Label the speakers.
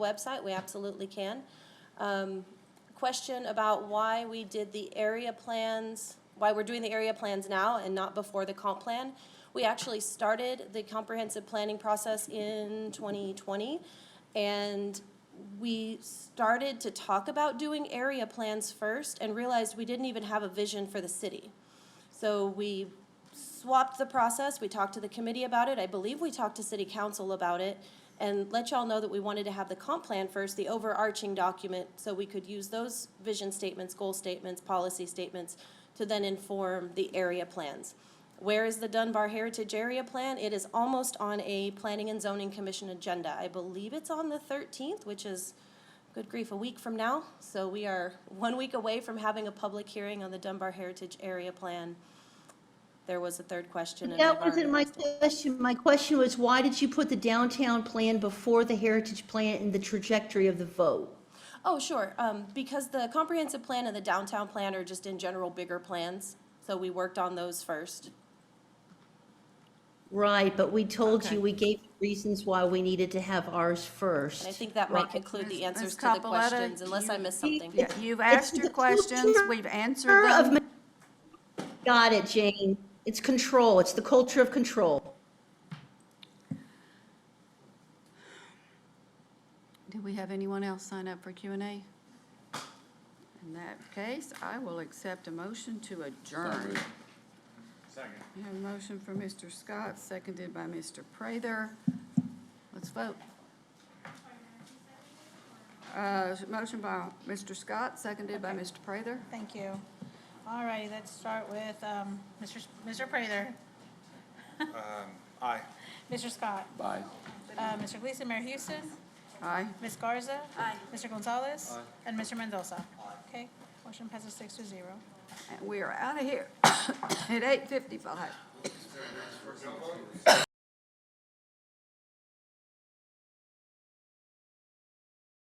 Speaker 1: website, we absolutely can. Um, Question about why we did the area plans, why we're doing the area plans now and not before the comp plan. We actually started the comprehensive planning process in 2020, and we started to talk about doing area plans first and realized we didn't even have a vision for the city. So we swapped the process, we talked to the committee about it, I believe we talked to city council about it, and let y'all know that we wanted to have the comp plan first, the overarching document, so we could use those vision statements, goal statements, policy statements, to then inform the area plans. Where is the Dunbar Heritage Area Plan? It is almost on a Planning and Zoning Commission agenda. I believe it's on the thirteenth, which is, good grief, a week from now. So we are one week away from having a public hearing on the Dunbar Heritage Area Plan. There was a third question. and I've
Speaker 2: That
Speaker 1: already
Speaker 2: wasn't my
Speaker 1: lost it.
Speaker 2: question. My question was, why did you put the downtown plan before the heritage plan and the trajectory of the vote?
Speaker 1: Oh, sure, um, because the comprehensive plan and the downtown plan are just in general bigger plans, so we worked on those first.
Speaker 2: Right, but we told
Speaker 3: Okay.
Speaker 2: you, we gave reasons why we needed to have ours first.
Speaker 1: And I think that might
Speaker 2: Right.
Speaker 1: conclude the
Speaker 3: Ms.
Speaker 1: answers to the
Speaker 3: Capaletta,
Speaker 1: questions,
Speaker 3: do
Speaker 1: unless I
Speaker 3: you-
Speaker 1: missed something.
Speaker 3: Yeah, You've asked your
Speaker 2: the
Speaker 3: questions,
Speaker 2: culture
Speaker 3: we've answered
Speaker 2: Culture of
Speaker 3: them.
Speaker 2: ma- Got it, Jane. It's control. It's the culture of control.
Speaker 3: Do we have anyone else sign up for Q and A? In that case, I will accept a motion to adjourn.
Speaker 4: Second.
Speaker 3: We have a motion from Mr. Scott, seconded by Mr. Prather. Let's vote. Uh, Motion by Mr. Scott, seconded by Mr. Prather.
Speaker 5: Thank you. All righty, let's start with um, Mr. S- Mr. Prather,
Speaker 4: Aye.
Speaker 5: Mr. Scott,
Speaker 4: Aye.
Speaker 5: uh, Mr. Gleason, Mayor Houston,
Speaker 3: Aye.
Speaker 5: Ms. Garza. Mr. Gonzalez. And Mr. Mendoza. Okay, motion passes six to zero.
Speaker 3: And we are out of here at eight fifty-five.